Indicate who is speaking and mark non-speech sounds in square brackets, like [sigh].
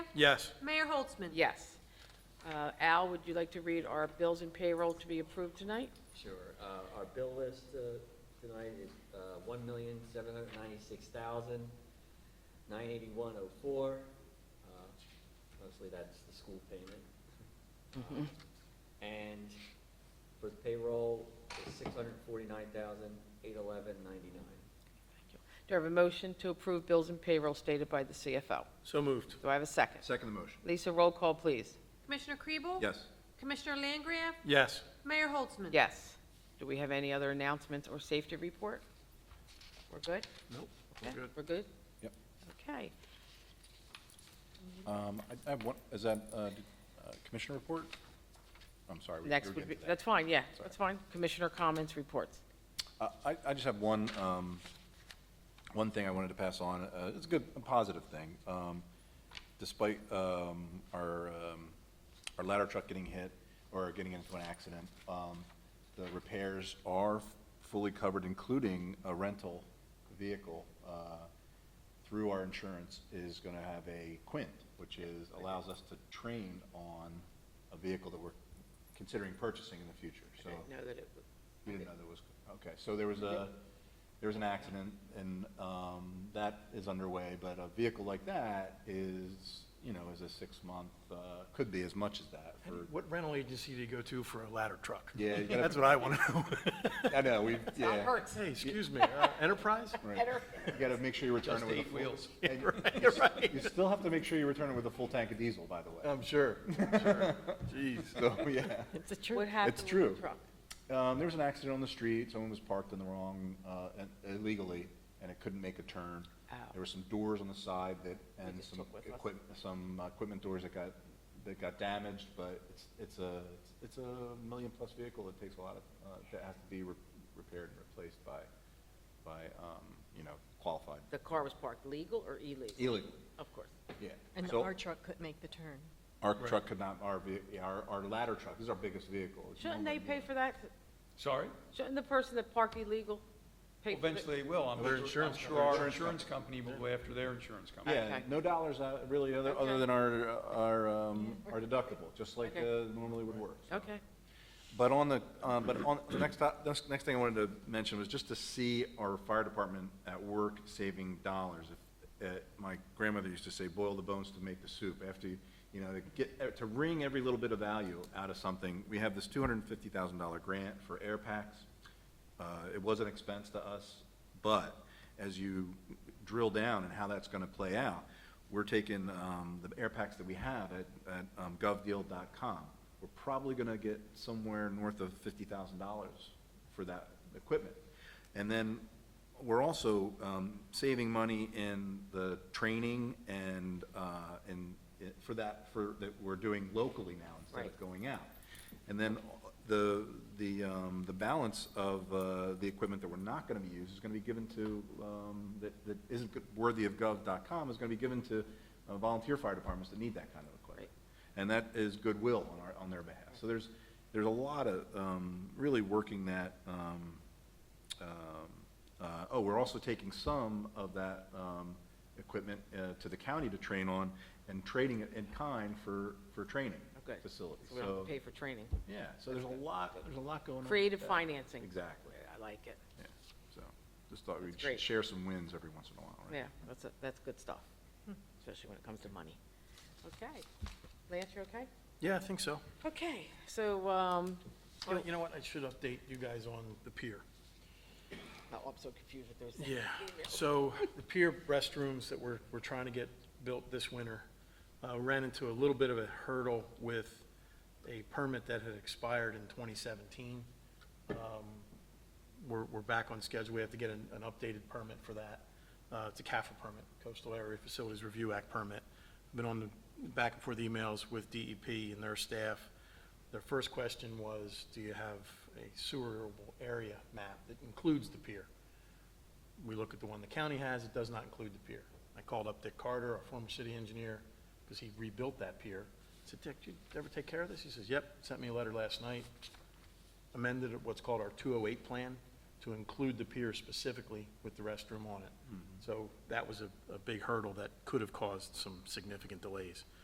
Speaker 1: Yes.
Speaker 2: Mayor Holtzman?
Speaker 3: Yes. Uh, Al, would you like to read our bills and payroll to be approved tonight?
Speaker 4: Sure. Uh, Our bill list uh, tonight is uh, one million, seven hundred ninety-six thousand, nine eighty-one oh four. Uh, Mostly that's the school payment. Uh, And for the payroll, it's six hundred forty-nine thousand, eight eleven ninety-nine.
Speaker 3: Do I have a motion to approve bills and payroll stated by the CFO?
Speaker 1: So moved.
Speaker 3: Do I have a second?
Speaker 5: Second the motion.
Speaker 3: Lisa, roll call, please.
Speaker 2: Commissioner Kriebel?
Speaker 5: Yes.
Speaker 2: Commissioner Langria?
Speaker 1: Yes.
Speaker 2: Mayor Holtzman?
Speaker 3: Yes. Do we have any other announcements or safety report? We're good?
Speaker 1: Nope.
Speaker 3: Okay,
Speaker 1: We're good.
Speaker 3: We're good?
Speaker 5: Yep.
Speaker 3: Okay.
Speaker 5: Um, I I have one, is that uh, d- uh, commissioner report? I'm sorry. we- we
Speaker 3: Next
Speaker 5: were
Speaker 3: would be,
Speaker 5: getting to that.
Speaker 3: that's fine, yeah, that's fine. Commissioner comments, reports.
Speaker 5: Uh, I, I just have one, um, one thing I wanted to pass on. Uh, It's a good, a positive thing. Um, Despite um, our, um, our ladder truck getting hit or getting into an accident, um, the repairs are fully covered, including a rental vehicle uh, through our insurance is going to have a quint, which is, allows us to train on a vehicle that we're considering purchasing in the future, so.
Speaker 3: I know that it would.
Speaker 5: You didn't know there was, okay, so there was a, there was an accident, and um, that is underway, but a vehicle like that is, you know, is a six-month, uh, could be as much as that for,
Speaker 1: What rental agency do you go to for a ladder truck? [laughs]
Speaker 5: Yeah, you gotta-
Speaker 1: That's what I want to know.
Speaker 5: I know, we, yeah.
Speaker 3: hurts.
Speaker 1: Hey, excuse me, uh, Enterprise?
Speaker 5: right. You gotta make sure you return it with a full. wheels.
Speaker 1: [laughs] Right, right.
Speaker 5: You still have to make sure you return it with a full tank of diesel, by the way.
Speaker 1: I'm sure. [laughs]
Speaker 5: Jeez. So, [laughs] yeah.
Speaker 3: It's true. What happened
Speaker 5: It's
Speaker 3: with
Speaker 5: true.
Speaker 3: the truck?
Speaker 5: Um, there was an accident on the street, someone was parked in the wrong, uh, and- illegally, and it couldn't make a turn.
Speaker 3: Ow.
Speaker 5: There were some doors on the side that, and
Speaker 3: just
Speaker 5: some
Speaker 3: took with us.
Speaker 5: equip, some uh, equipment doors that got, that got damaged, but it's, it's a, it's a million-plus vehicle that takes a lot of, uh, that has to be re- repaired and replaced by, by, um, you know, qualified.
Speaker 3: The car was parked legal or illegal?
Speaker 5: Illegally.
Speaker 3: Of course.
Speaker 5: Yeah.
Speaker 6: And
Speaker 5: So
Speaker 6: our truck couldn't make the turn.
Speaker 5: Our truck could not, our, ve- yeah, our, our ladder truck, this is our biggest vehicle. It's
Speaker 3: Shouldn't they pay for that?
Speaker 7: Sorry?
Speaker 3: Shouldn't the person that parked illegal pay for it?
Speaker 7: Eventually it will. I'm
Speaker 1: Their
Speaker 7: sure, I'm
Speaker 1: insurance
Speaker 7: sure our insurance company will go after their insurance company.
Speaker 5: Yeah,
Speaker 3: Okay.
Speaker 5: no dollars uh, really, other, other than our, our, um, our deductible, just like
Speaker 3: Okay.
Speaker 5: uh, normally would work. so.
Speaker 3: Okay.
Speaker 5: But on the, uh, but on, the next, to- this next thing I wanted to mention was just to see our fire department at work saving dollars. If, uh, My grandmother used to say, boil the bones to make the soup. After, you you know, to get, uh, to wring every little bit of value out of something, we have this two hundred and fifty thousand dollar grant for air packs. Uh, It was an expense to us, but as you drill down and how that's going to play out, we're taking um, the air packs that we have at, at um, govdeal.com. We're probably going to get somewhere north of fifty thousand dollars for that equipment. And then we're also um, saving money in the training and, uh, and it- for that, for, that we're doing locally now instead
Speaker 3: Right.
Speaker 5: of going out. And then the, the, um, the balance of, uh, the equipment that we're not gonna be used is gonna be given to, um, that, that isn't good- worthy of gov.com is gonna be given to uh, volunteer fire departments that need that kind of equipment. And that is goodwill on our, on their behalf. So there's, there's a lot of, um, really working that, um, um, uh, oh, we're also taking some of that um, equipment uh, to the county to train on and trading it in kind for, for training
Speaker 3: Okay.
Speaker 5: facilities.
Speaker 3: So we don't have
Speaker 5: So,
Speaker 3: to pay for training.
Speaker 5: yeah, so there's a lot, there's a lot going on. with
Speaker 3: Creative
Speaker 5: that.
Speaker 3: financing.
Speaker 5: Exactly,
Speaker 3: I like it.
Speaker 5: yeah. So just thought we'd
Speaker 3: That's great.
Speaker 5: sh- share some wins every once in a while, right?
Speaker 3: Yeah, that's, a- that's good stuff, especially when it comes to money. Okay. Lance, you okay?
Speaker 1: Yeah, I think so.
Speaker 3: Okay, so, um,
Speaker 1: Well, You know what, I should update you guys on the pier.
Speaker 3: oh, I'm so confused with those
Speaker 1: Yeah,
Speaker 3: things.
Speaker 1: so the pier restrooms that we're, we're trying to get built this winter, uh, ran into a little bit of a hurdle with a permit that had expired in twenty seventeen. Um, We're, we're back on schedule, we have to get an, an updated permit for that. Uh, it's a CAFA permit, Coastal Area Facilities Review Act permit. I've Been on the, back and forth emails with DEP and their staff. Their first question was, do you have a sewerable area map that includes the pier? we look at the one the county has, it does not include the pier. I called up Dick Carter, our former city engineer, because he rebuilt that pier. I said, Dick, did you ever take care of this? He says, yep, sent me a letter last night, amended what's called our 208 plan to include the pier specifically with the restroom on it. So that was a, a big hurdle that could have caused some significant delays.